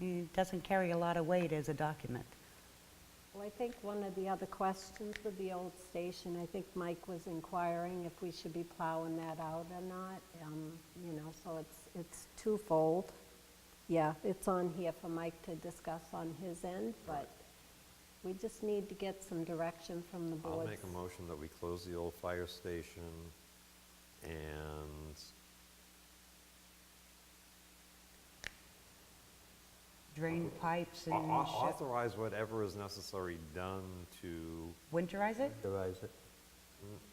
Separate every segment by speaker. Speaker 1: it doesn't carry a lot of weight as a document.
Speaker 2: Well, I think one of the other questions with the old station, I think Mike was inquiring if we should be plowing that out or not, um, you know, so it's, it's twofold. Yeah, it's on here for Mike to discuss on his end, but we just need to get some direction from the
Speaker 3: I'll
Speaker 2: board.
Speaker 3: make a motion that we close the old fire station and
Speaker 1: Drain pipes
Speaker 3: au-
Speaker 1: and
Speaker 3: au-
Speaker 1: shit.
Speaker 3: authorize whatever is necessary done to,
Speaker 1: Winterize it?
Speaker 4: Authorize it.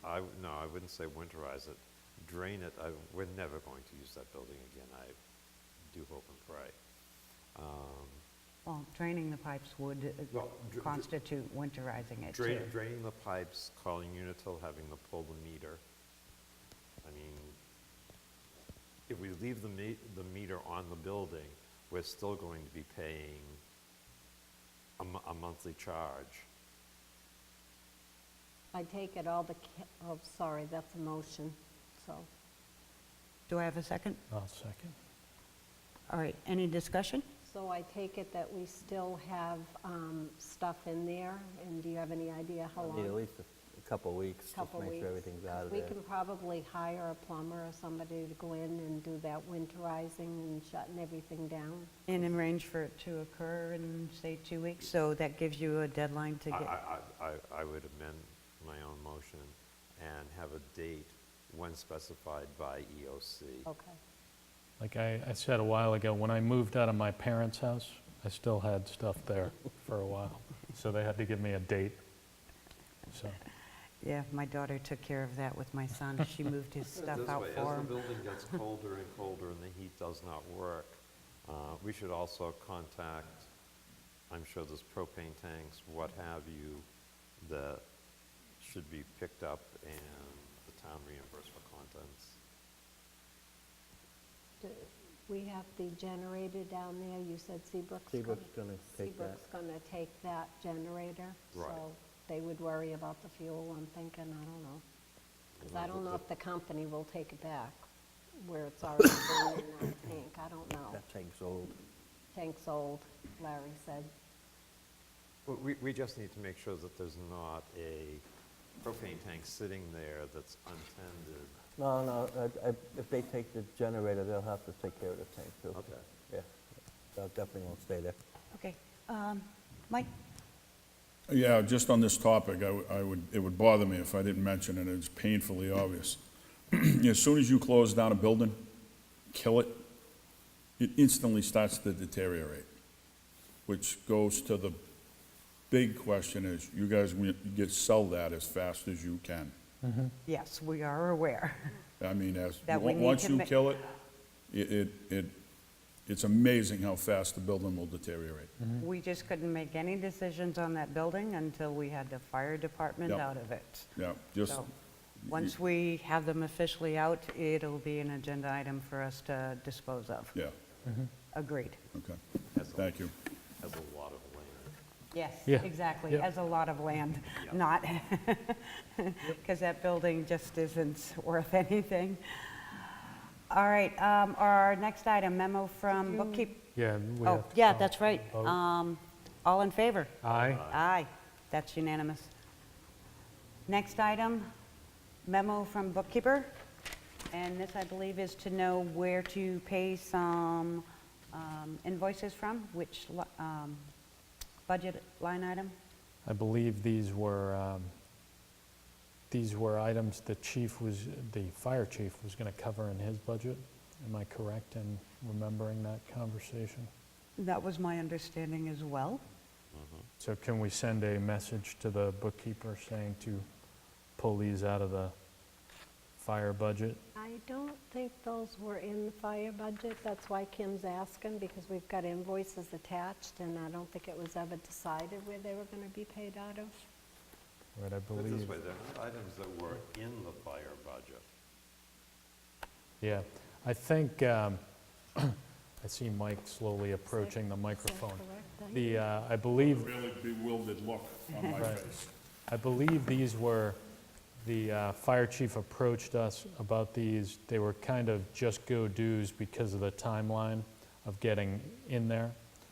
Speaker 3: I, w- no, I wouldn't say winterize it, drain it. I, we're never going to use that building again, I do hope and pray.
Speaker 1: Well, draining the pipes would uh,
Speaker 3: Well, dr-
Speaker 1: constitute winterizing it,
Speaker 3: Drain,
Speaker 1: too.
Speaker 3: draining the pipes, calling Unitil, having them pull the meter. I mean, if we leave the me, the meter on the building, we're still going to be paying a, mo- a monthly charge.
Speaker 2: I take it all the, ca- oh, sorry, that's a motion, so,
Speaker 1: Do I have a second?
Speaker 5: I'll second.
Speaker 1: All right, any discussion?
Speaker 2: so I take it that we still have um, stuff in there, and do you have any idea how long?
Speaker 4: Need at least a- a couple of weeks, just
Speaker 2: couple
Speaker 4: make
Speaker 2: weeks.
Speaker 4: sure everything's out of
Speaker 2: We
Speaker 4: there.
Speaker 2: can probably hire a plumber or somebody to go in and do that winterizing and shutting everything down.
Speaker 1: And in range for it to occur in, say, two weeks, so that gives you a deadline to
Speaker 3: I,
Speaker 1: get,
Speaker 3: I, I- I would amend my own motion and have a date when specified by E EOC.
Speaker 2: Okay.
Speaker 5: Like I, I said a while ago, when I moved out of my parents' house, I still had stuff there for a while. So they had to give me a date. So,
Speaker 1: yeah, my daughter took care of that with my son. She moved his stuff out for
Speaker 3: As the
Speaker 1: him.
Speaker 3: building gets colder and colder and the heat does not work, uh, we should also contact, I'm sure there's propane tanks, what have you, that should be picked up and the town reimbursed for contents.
Speaker 2: Do- We have the generator down there, you said Seabrook's gonna...
Speaker 4: Seabrook's gonna take that.
Speaker 2: Seabrook's gonna take that generator.
Speaker 3: Right.
Speaker 2: So they would worry about the fuel, I'm thinking, I don't know. Because I don't know if the company will take it back, where it's already been in that tank, I don't know.
Speaker 4: That tank's old.
Speaker 2: Tank's old, Larry said.
Speaker 3: Well, We, we just need to make sure that there's not a propane tank sitting there that's untended.
Speaker 4: No, no, I- I- if they take the generator, they'll have to take care of the tank, too.
Speaker 3: Okay.
Speaker 4: Yeah, that definitely won't stay there.
Speaker 1: Okay, um, Mike,
Speaker 6: Yeah, just on this topic, I w- I would, it would bother me if I didn't mention it, it's painfully obvious. As soon as you close down a building, kill it, it instantly starts to deteriorate, which goes to the big question is, you guys wi- get, sell that as fast as you can.
Speaker 1: yes, we are aware.
Speaker 6: I mean, as,
Speaker 1: That we
Speaker 6: on-
Speaker 1: need
Speaker 6: once
Speaker 1: to
Speaker 6: you
Speaker 1: ma-
Speaker 6: kill it, it, it, it, it's amazing how fast the building will deteriorate.
Speaker 1: We just couldn't make any decisions on that building until we had the fire department
Speaker 6: Yep.
Speaker 1: out of it.
Speaker 6: Yeah, just,
Speaker 1: So, once we have them officially out, it'll be an agenda item for us to dispose of.
Speaker 6: yeah,
Speaker 1: Agreed.
Speaker 6: okay,
Speaker 3: That's a-
Speaker 6: thank you.
Speaker 3: Has a lot of land.
Speaker 1: Yes,
Speaker 5: Yeah.
Speaker 1: exactly,
Speaker 5: Yep.
Speaker 1: as a lot of land, not, because that building just isn't worth anything. All right, um, our next item, memo from bookkeep.
Speaker 5: yeah. we
Speaker 1: Oh,
Speaker 5: have to
Speaker 1: yeah,
Speaker 5: call
Speaker 1: that's right.
Speaker 5: vote.
Speaker 1: Um, All in favor?
Speaker 5: Aye.
Speaker 1: Aye, that's unanimous. Next item, memo from bookkeeper, and this, I believe, is to know where to pay some um, invoices from, which li- um, budget line item?
Speaker 5: I believe these were, um, these were items the chief was, the fire chief was going to cover in his budget. Am I correct in remembering that conversation?
Speaker 1: That was my understanding as well.
Speaker 5: So can we send a message to the bookkeeper saying to pull these out of the fire budget?
Speaker 2: I don't think those were in the fire budget, that's why Kim's asking, because we've got invoices attached, and I don't think it was ever decided where they were gonna be paid out of.
Speaker 5: Right, I
Speaker 3: Put it this
Speaker 5: believe.
Speaker 3: way, there are items that were in the fire budget.
Speaker 5: Yeah, I think, um, I see Mike slowly approaching the microphone.
Speaker 2: correct?
Speaker 5: The, uh, I believe
Speaker 6: Really bewildered look on my
Speaker 5: Right.
Speaker 6: face.
Speaker 5: I believe these were, the uh, fire chief approached us about these. They were kind of just-go dues because of the timeline of getting in there.